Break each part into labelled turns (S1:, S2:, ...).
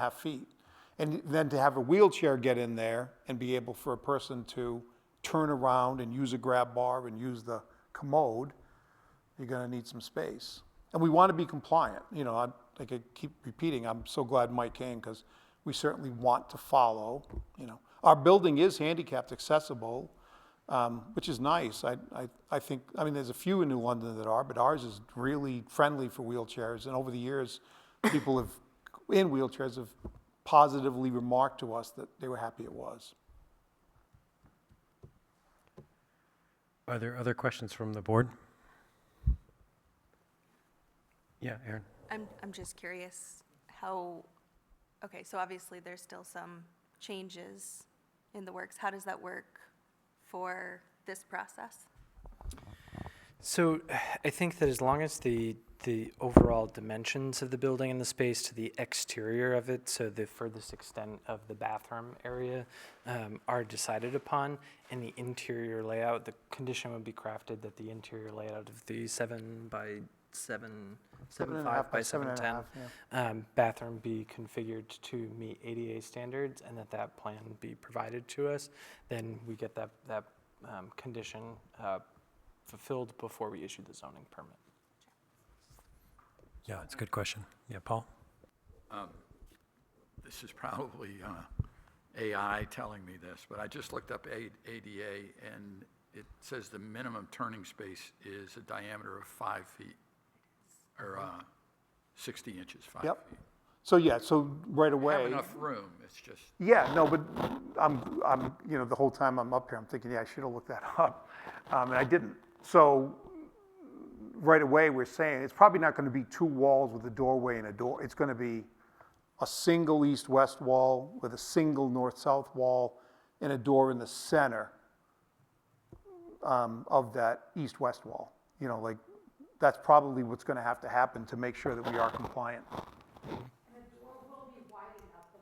S1: half feet. And then to have a wheelchair get in there and be able for a person to turn around and use a grab bar and use the commode, you're gonna need some space. And we wanna be compliant, you know, I, like I keep repeating, I'm so glad Mike came, because we certainly want to follow, you know. Our building is handicapped accessible, um, which is nice. I, I, I think, I mean, there's a few in New London that are, but ours is really friendly for wheelchairs. And over the years, people have, in wheelchairs have positively remarked to us that they were happy it was.
S2: Are there other questions from the board? Yeah, Aaron.
S3: I'm, I'm just curious how, okay, so obviously there's still some changes in the works. How does that work for this process?
S4: So I think that as long as the, the overall dimensions of the building and the space to the exterior of it, so the furthest extent of the bathroom area, um, are decided upon, and the interior layout, the condition would be crafted that the interior layout of the seven by seven,
S1: Seven
S4: seven
S1: and a half
S4: five by
S1: seven
S4: seven
S1: and a
S4: ten
S1: half, yeah.
S4: um, bathroom be configured to meet ADA standards and that that plan be provided to us, then we get that, that um, condition uh, fulfilled before we issue the zoning permit.
S2: Yeah, it's a good question. Yeah, Paul?
S5: This is probably uh, AI telling me this, but I just looked up A- ADA, and it says the minimum turning space is a diameter of five feet, or uh, 60 inches, five feet.
S1: Yep. So, yeah, so right
S5: We
S1: away.
S5: Have enough room, it's just,
S1: Yeah, no, but I'm, I'm, you know, the whole time I'm up here, I'm thinking, yeah, I should have looked that up, um, and I didn't. So, right away, we're saying it's probably not going to be two walls with a doorway and a door. It's going to be a single east-west wall with a single north-south wall and a door in the center um, of that east-west wall. You know, like that's probably what's going to have to happen to make sure that we are compliant.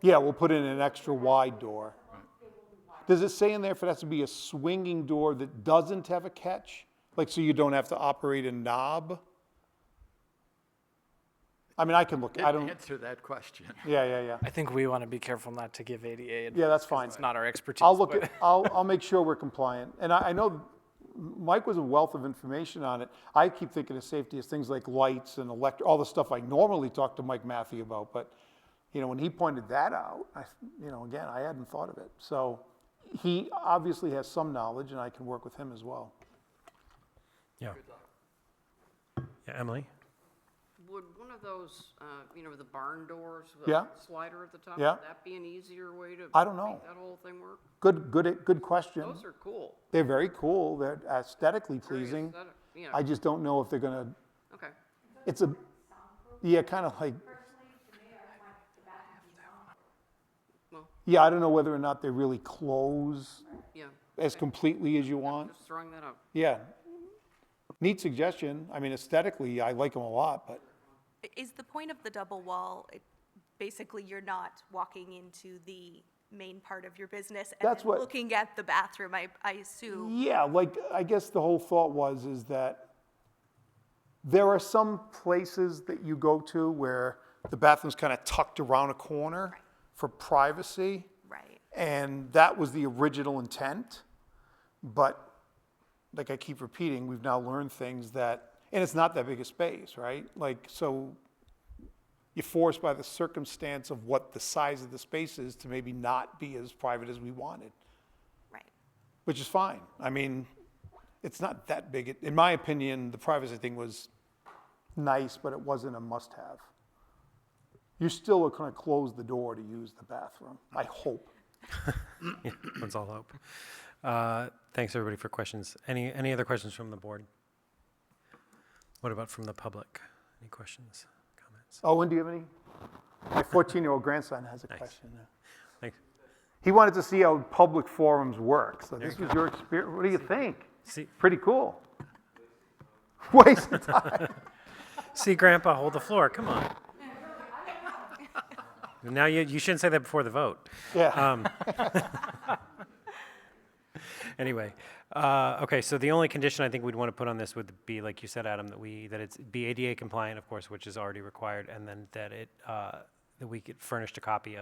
S1: Yeah, we'll put in an extra wide door. Does it say in there if it has to be a swinging door that doesn't have a catch? Like, so you don't have to operate a knob? I mean, I can look, I
S5: didn't
S1: don't,
S5: answer that question.
S1: yeah, yeah, yeah.
S4: I think we want to be careful not to give ADA advice.
S1: Yeah, that's
S4: 'cause
S1: fine.
S4: It's not our expertise.
S1: I'll look
S4: but-
S1: at, I'll, I'll make sure we're compliant. And I, I know Mike was a wealth of information on it. I keep thinking of safety as things like lights and elect, all the stuff I normally talk to Mike Matthew about. But, you know, when he pointed that out, I, you know, again, I hadn't thought of it. So he obviously has some knowledge and I can work with him as well.
S2: Yeah. Yeah, Emily?
S6: Would one of those, uh, you know, the barn doors,
S1: Yeah.
S6: the slider at the top, would
S1: Yeah.
S6: that be an easier way to?
S1: I don't know.
S6: Make that whole thing work?
S1: Good, good, good question.
S6: Those are cool.
S1: They're very cool. They're aesthetically
S6: Very
S1: pleasing.
S6: aesthetic, You
S1: I
S6: know,
S1: just don't know if they're gonna,
S6: okay.
S1: it's a, yeah, kind of like
S6: Well,
S1: Yeah, I don't know whether or not they really close
S6: yeah,
S1: as completely as you want.
S6: just throwing that up.
S1: Yeah. Neat suggestion. I mean, aesthetically, I like them a lot, but
S3: I- Is the point of the double wall, it- basically you're not walking into the main part of your business and
S1: That's
S3: then
S1: what- Mm.
S3: looking at the bathroom, I, I assume?
S1: yeah, like I guess the whole thought was is that there are some places that you go to where the bathroom's kind of tucked around a corner for privacy.
S3: Right.
S1: And that was the original intent. But like I keep repeating, we've now learned things that, and it's not that big a space, right? Like, so you're forced by the circumstance of what the size of the space is to maybe not be as private as we wanted,
S3: Right.
S1: which is fine. I mean, it's not that big. In my opinion, the privacy thing was nice, but it wasn't a must have. You still are going to close the door to use the bathroom, I hope.
S2: Yeah, that's all hope. Uh, Thanks, everybody, for questions. Any, any other questions from the board? What about from the public? Any questions, comments?
S1: Owen, Oh, do you have any? My 14-year-old grandson has a question.
S2: Thanks.
S1: He wanted to see how public forums work, so this was your experience. What do you think?
S2: See,
S1: Pretty cool. Waste of time.
S2: see, Grandpa, hold the floor, come on. Now, you, you shouldn't say that before the vote.
S1: Yeah.
S2: Anyway, uh, okay, so the only condition I think we'd want to put on this would be, like you said, Adam, that we, that it's be ADA compliant, of course, which is already required, and then that it, uh, that we could furnished a copy